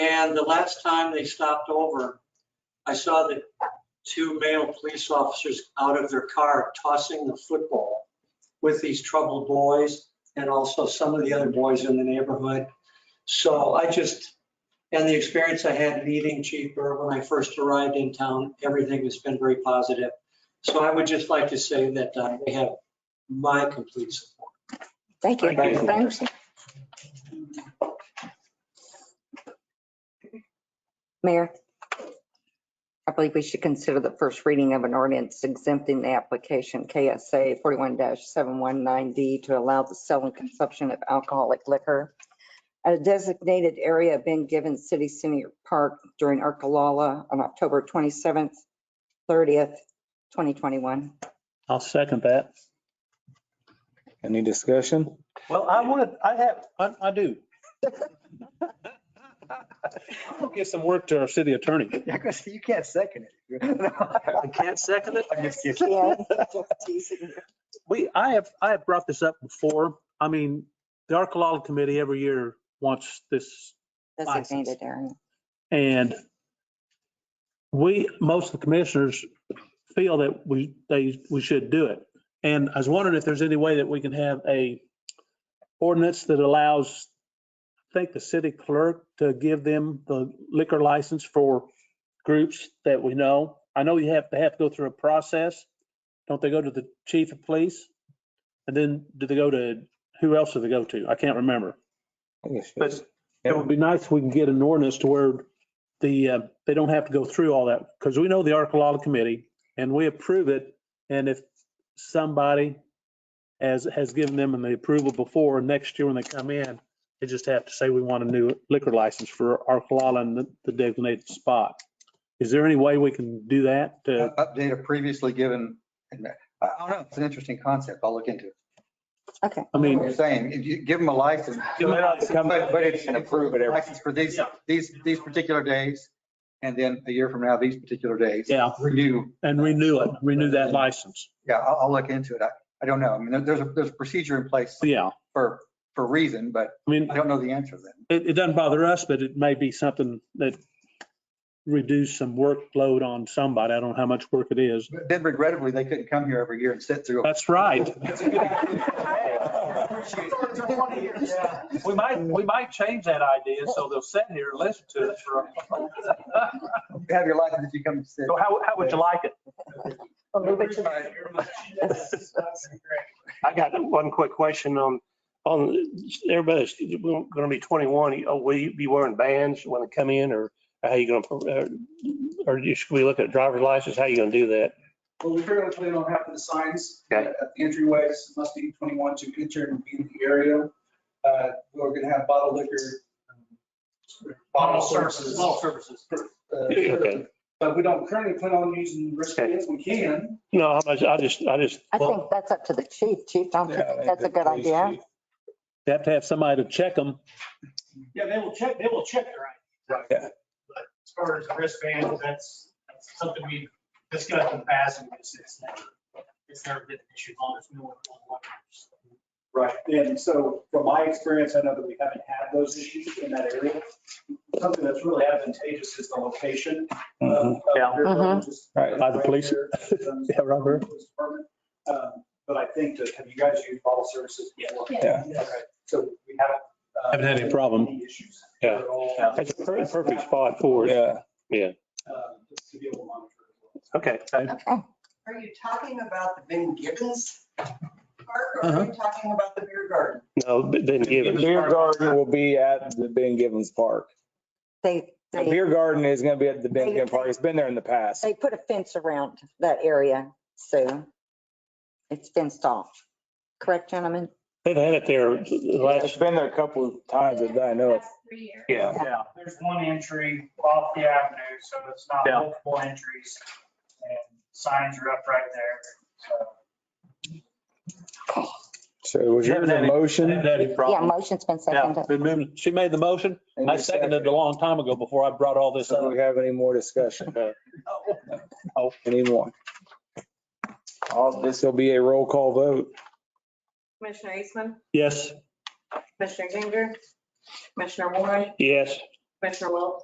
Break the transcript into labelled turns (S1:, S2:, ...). S1: And the last time they stopped over, I saw the two male police officers out of their car tossing the football with these troubled boys and also some of the other boys in the neighborhood. So I just, and the experience I had meeting Chief Burr when I first arrived in town, everything has been very positive. So I would just like to say that uh, they have my complete support.
S2: Thank you.
S1: Thank you.
S2: Thanks. Mayor, I believe we should consider the first reading of an ordinance exempting the application KSA 41-719D to allow the sale and consumption of alcoholic liquor at a designated area being given City Senior Park during Arkalala on October 27th, 30th, 2021.
S3: I'll second that.
S4: Any discussion?
S3: Well, I would, I have, I, I do. I'll get some work to our city attorney.
S4: Yeah, because you can't second it.
S1: I can't second it.
S4: I'm just kidding.
S2: Yeah, just teasing.
S3: We, I have, I have brought this up before. I mean, the Arcalala Committee every year wants this, License.
S2: Designated area.
S3: and we, most of the commissioners feel that we, they, we should do it. And I was wondering if there's any way that we can have a ordinance that allows, I think, the city clerk to give them the liquor license for groups that we know. I know you have, they have to go through a process. Don't they go to the chief of police? And then do they go to, who else do they go to? I can't remember. But it would be nice if we can get an ordinance to where the, uh, they don't have to go through all that, because we know the Arcalala Committee, and we approve it, and if somebody has, has given them the approval before, next year when they come in, they just have to say, we want a new liquor license for Arcalala and the- the designated spot. Is there any way we can do that? to-
S5: Uh, update a previously given, uh, I I don't know, it's an interesting concept, I'll look into it.
S2: Okay.
S3: I
S5: What You're
S3: mean,
S5: saying, if you give them a license, but, but it's.
S4: And approve it every-
S5: License for these, these, these particular days, and then a year from now, these particular days.
S3: yeah,
S5: Renew,
S3: and renew it, renew that license.
S5: yeah, I'll, I'll look into it, I, I don't know, I mean, there- there's, a there's a procedure in place
S3: Yeah,
S5: for, for reason, but
S3: I mean,
S5: I don't know the answer then.
S3: it, it doesn't bother us, but it may be something that reduce some workload on somebody. I don't know how much work it is.
S5: But Then regrettably, they couldn't come here every year and sit through.
S3: That's right.
S6: We might, we might change that idea, so they'll sit here and listen to it for.
S5: Have your license if you come sit.
S6: So how, how would you like it?
S7: I got one quick question on, on, everybody's going to be 21. Oh, Will you be wearing bands when they come in or how you going to, or you- should we look at driver's license? How you going to do that?
S8: Well, we currently plan on having the signs
S7: Okay.
S8: at the entryways, must be 21 to enter and be in the area. Uh, We're going to have bottled liquor. um, Bottle services.
S1: All services.
S8: uh,
S7: Okay.
S8: But we don't currently plan on using wristbands. We can.
S7: No, I just- I just, I just,
S2: I think that's up to the chief. Chief, don't you think that's a good idea?
S3: They have to have somebody to check them.
S6: Yeah, they will check, they will check their ID.
S4: Yeah.
S6: But as far as wristbands, that's, that's something we discussed in the past and it's, it's never, it's never been an issue on this new one.
S8: Right. And so from my experience, I know that we haven't had those issues in that area. Something that's really advantageous is the location. uh, of
S6: Yeah.
S8: your-
S2: Mhm.
S8: just-
S4: Right,
S3: by the police.
S8: Um,
S3: Yeah, Robert.
S8: Um, But I think that, have you guys used bottle services? before?
S4: Yeah.
S8: Okay, So we haven't. uh,
S3: Haven't had any problem.
S8: any issues
S7: Yeah.
S8: at all.
S7: that's a per- perfect spot for it.
S4: Yeah,
S8: Um, just to be able to monitor as well.
S7: Okay.
S2: Okay.
S9: Are you talking about the Ben Gibbons Park or are you talking about the beer garden?
S7: No, but then give it.
S4: beer garden will be at the Ben Givens Park.
S2: They,
S4: The
S2: they,
S4: beer garden is gonna be at the Ben Givens Park. It's been there in the past.
S2: they put a fence around that area, so it's fenced off. Correct, gentlemen?
S7: They've had it there the
S4: It's
S7: last,
S4: been there a couple of times that I know of.
S7: yeah.
S6: Yeah. There's one entry off the avenue, so it's not multiple entries and signs are up right there, so.
S4: So was yours a motion?
S2: Yeah, motion's been seconded.
S3: Remember, she made the motion. I seconded it a long time ago before I brought all this
S4: So do
S3: up.
S4: we have any more discussion? Oh, any more? All, this will be a roll call vote.
S10: Commissioner Eastman,
S3: Yes.
S10: Commissioner Ginger, Commissioner Warren,
S7: Yes.
S10: Commissioner Wilk.